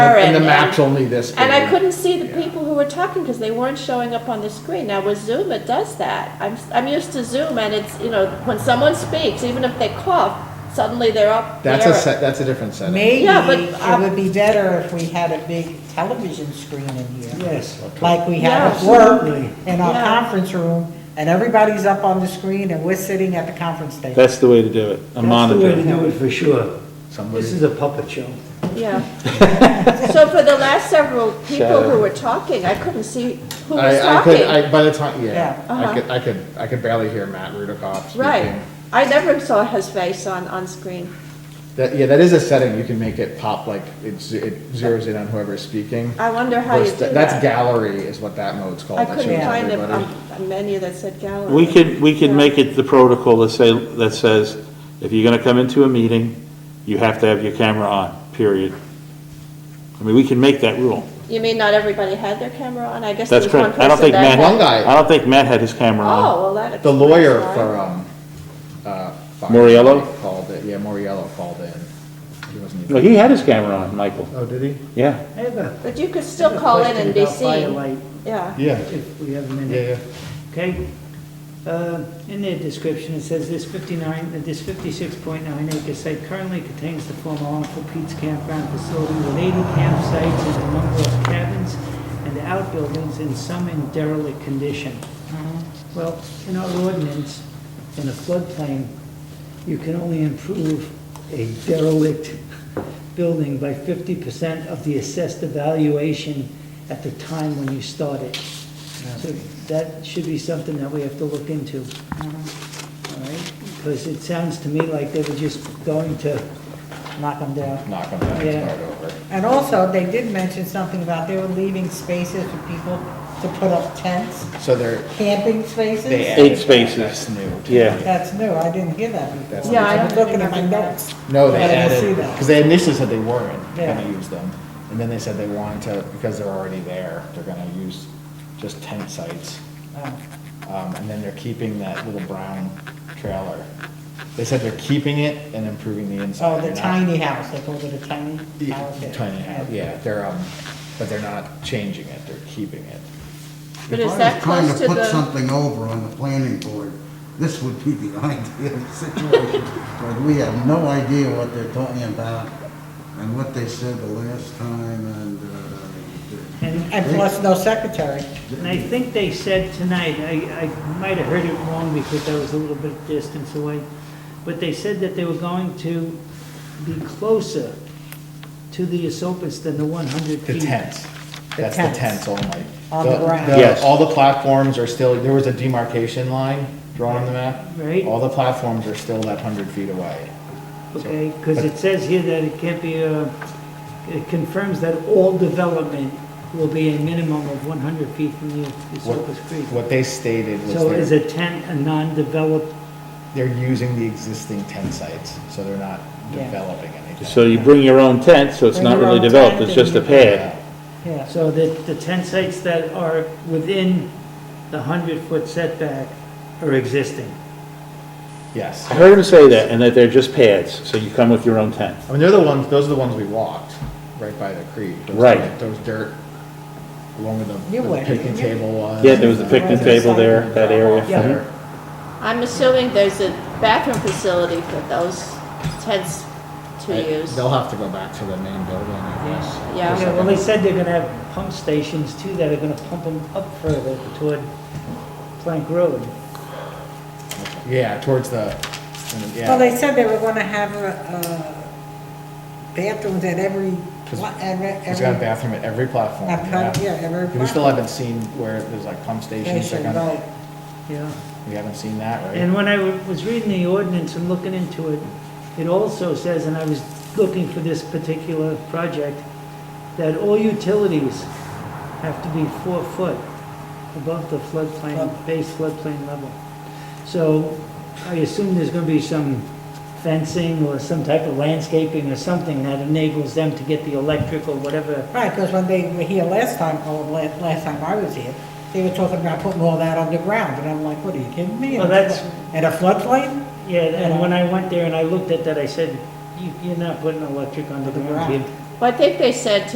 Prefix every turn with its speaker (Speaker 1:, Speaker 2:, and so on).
Speaker 1: And the
Speaker 2: and-
Speaker 1: map's only this big.
Speaker 2: And I couldn't see the
Speaker 1: Yeah.
Speaker 2: people who were talking because they weren't showing up on the screen. Now with Zoom, it does that. I'm, I'm used to Zoom and it's, you know, when someone speaks, even if they cough, suddenly they're up there.
Speaker 1: That's a, se- that's a different setup.
Speaker 3: Maybe
Speaker 2: Yeah, but, uh,
Speaker 3: it would be better if we had a big television screen in here,
Speaker 4: Yes,
Speaker 3: like we have at
Speaker 2: Yeah.
Speaker 3: work in our
Speaker 2: Yeah.
Speaker 3: conference room, and everybody's up on the screen and we're sitting at the conference table.
Speaker 5: That's the way to do it, a
Speaker 4: that's the way to
Speaker 5: monitor.
Speaker 4: do it for sure.
Speaker 1: Somebody-
Speaker 4: This is a puppet show.
Speaker 2: Yeah. So for the last several people
Speaker 5: Shadow.
Speaker 2: who were talking, I couldn't see who was
Speaker 1: I, I could,
Speaker 2: talking.
Speaker 1: I, by the time, yeah,
Speaker 3: Yeah.
Speaker 1: I
Speaker 2: Uh-huh.
Speaker 1: could, I could, I could barely hear Matt Rudokoff speaking.
Speaker 2: Right. I never saw his face on, on screen.
Speaker 1: That, yeah, that is a setting, you can make it pop, like, it z- it zeroes in on whoever's speaking.
Speaker 2: I wonder how you
Speaker 1: Versus-
Speaker 2: do that.
Speaker 1: That's gallery is what that mode's called.
Speaker 2: I
Speaker 1: that
Speaker 2: couldn't
Speaker 1: shows
Speaker 2: find a,
Speaker 1: everybody.
Speaker 2: a- a menu that said gallery.
Speaker 5: We could, we could
Speaker 2: Yeah.
Speaker 5: make it the protocol that say, that says, if you're gonna come into a meeting, you have to have your camera on, period. I mean, we can make that rule.
Speaker 2: You mean not everybody had their camera on? I guess there
Speaker 5: That's
Speaker 2: was one
Speaker 5: correct. I don't
Speaker 2: person
Speaker 5: think
Speaker 2: that.
Speaker 5: Matt,
Speaker 1: One
Speaker 2: had-
Speaker 1: guy.
Speaker 5: I don't think Matt had his camera on.
Speaker 2: Oh, well, that.
Speaker 1: Uh, The lawyer
Speaker 2: explains why.
Speaker 1: for, um, uh. Fox
Speaker 5: Moriello?
Speaker 1: Called it, yeah, Moriello called in. He wasn't
Speaker 5: No,
Speaker 1: even.
Speaker 5: he had his camera on, Michael.
Speaker 1: Oh, did he?
Speaker 5: Yeah.
Speaker 4: I have a-
Speaker 2: But you could
Speaker 4: I have
Speaker 2: still
Speaker 4: a
Speaker 2: call in
Speaker 4: question
Speaker 2: and be
Speaker 4: about
Speaker 2: seen,
Speaker 4: Firelight,
Speaker 2: yeah.
Speaker 1: Yeah,
Speaker 4: If we have a minute.
Speaker 1: yeah, yeah.
Speaker 4: Okay, Uh, in their description, it says this 59, that this 56.9 acre site currently contains the former Uncle Pete's campground facility with 80 campsites and a number of cabins and outbuildings in some in derelict condition. Well, in our ordinance, in a floodplain, you can only improve a derelict building by 50% of the assessed evaluation at the time when you start it. So that should be something that we have to look into. All right? Because it sounds to me like they were just going to,
Speaker 3: Knock them down.
Speaker 1: Knock on that and
Speaker 4: Yeah.
Speaker 1: start over.
Speaker 3: And also, they did mention something about they were leaving spaces for people to put up tents,
Speaker 1: So they're,
Speaker 3: camping spaces.
Speaker 1: they
Speaker 5: Eight
Speaker 1: added that,
Speaker 5: spaces.
Speaker 1: that's new. to
Speaker 5: Yeah.
Speaker 1: me.
Speaker 3: That's new, I didn't hear that
Speaker 1: That's
Speaker 3: before.
Speaker 2: Yeah, I don't
Speaker 3: Looking at my
Speaker 2: remember that.
Speaker 3: notes.
Speaker 1: No, they
Speaker 3: But I didn't see
Speaker 1: added,
Speaker 3: that.
Speaker 1: because they initially said they weren't gonna
Speaker 3: Yeah.
Speaker 1: use them, and then they said they wanted to, because they're already there, they're gonna use just tent sites.
Speaker 3: Oh.
Speaker 1: Um, and then they're keeping that little brown trailer. They said they're keeping it and improving the inside.
Speaker 3: Oh, the
Speaker 1: They're not-
Speaker 3: tiny house, they called it a tiny house.
Speaker 1: Yeah, Tiny house, yeah, they're, um, but they're not changing it, they're keeping it.
Speaker 2: But is that close to
Speaker 6: If I was trying to put
Speaker 2: the,
Speaker 6: something over on the planning board, this would be the ideal situation. But we have no idea what they're talking about and what they said the last time and, uh.
Speaker 4: and
Speaker 3: And plus no secretary.
Speaker 4: and I think they said tonight, I, I might have heard it wrong because I was a little bit distance away, but they said that they were going to be closer to the Esopus than the 100 feet.
Speaker 1: The tents, that's the
Speaker 3: tents.
Speaker 1: tents only.
Speaker 3: On the ground.
Speaker 5: Yes.
Speaker 1: All the platforms are still, there was a demarcation line drawn on the map.
Speaker 4: Right.
Speaker 1: All the platforms are still that hundred feet away.
Speaker 4: Okay, because it says here that it can't be, uh, it confirms that all development will be a minimum of 100 feet from the
Speaker 1: What-
Speaker 4: Esopus Creek.
Speaker 1: What they stated
Speaker 4: So
Speaker 1: was
Speaker 4: is
Speaker 1: they're,
Speaker 4: a tent a non-developed,
Speaker 1: they're using the existing tent sites, so they're not
Speaker 3: Yeah.
Speaker 1: developing anything.
Speaker 5: So you bring your own tent, so it's
Speaker 3: Bring
Speaker 5: not
Speaker 3: your
Speaker 5: really
Speaker 3: own
Speaker 5: developed,
Speaker 3: tent
Speaker 5: it's just a
Speaker 3: and-
Speaker 5: pad.
Speaker 3: Yeah,
Speaker 4: so that the tent sites that are within the 100-foot setback are existing?
Speaker 1: Yes.
Speaker 5: I heard him say that, and that they're just pads, so you come with your own tent.
Speaker 1: I mean, they're the ones, those are the ones we walked, right by the creek. Those-
Speaker 5: Right.
Speaker 1: Those dirt, along with the-
Speaker 3: You
Speaker 1: where the
Speaker 3: went.
Speaker 1: picnic table was.
Speaker 5: Yeah, there was a picnic
Speaker 3: Right.
Speaker 5: table there, that area.
Speaker 4: Yeah.
Speaker 5: Mhm.
Speaker 2: I'm assuming there's a bathroom facility for those tents to
Speaker 1: I-
Speaker 2: use.
Speaker 1: They'll have to go back to the main building, I guess.
Speaker 2: Yeah.
Speaker 4: Yeah, well, they said they're gonna have pump stations too, that are gonna pump them up further toward Plank Road.
Speaker 1: Yeah, towards the,
Speaker 3: well,
Speaker 1: yeah,
Speaker 3: they said they were gonna have a, uh, bathrooms at every,
Speaker 1: Cause-
Speaker 3: pla- every,
Speaker 1: it's got a
Speaker 3: every.
Speaker 1: bathroom at every platform.
Speaker 3: At pump- yeah, every
Speaker 1: We still
Speaker 3: platform.
Speaker 1: haven't seen where there's like pump stations, they're
Speaker 3: station,
Speaker 1: gonna-
Speaker 3: right.
Speaker 4: Yeah.
Speaker 1: we haven't seen that, right?
Speaker 4: And when I wa- was reading the ordinance and looking into it, it also says, and I was looking for this particular project, that all utilities have to be four foot above the floodplain, base floodplain level. So I assume there's gonna be some fencing or some type of landscaping or something that enables them to get the electric or whatever.
Speaker 3: Right, because when they were here last time, or last, last time I was here, they were talking about putting all that underground, and I'm like, what, are you kidding me?
Speaker 4: Well, that's-
Speaker 3: And a floodplain?
Speaker 4: Yeah, and when I went there and I looked at that, I said, "You- you're not putting electric under the ground.
Speaker 3: Underground.
Speaker 4: kid."
Speaker 2: Well, I think they said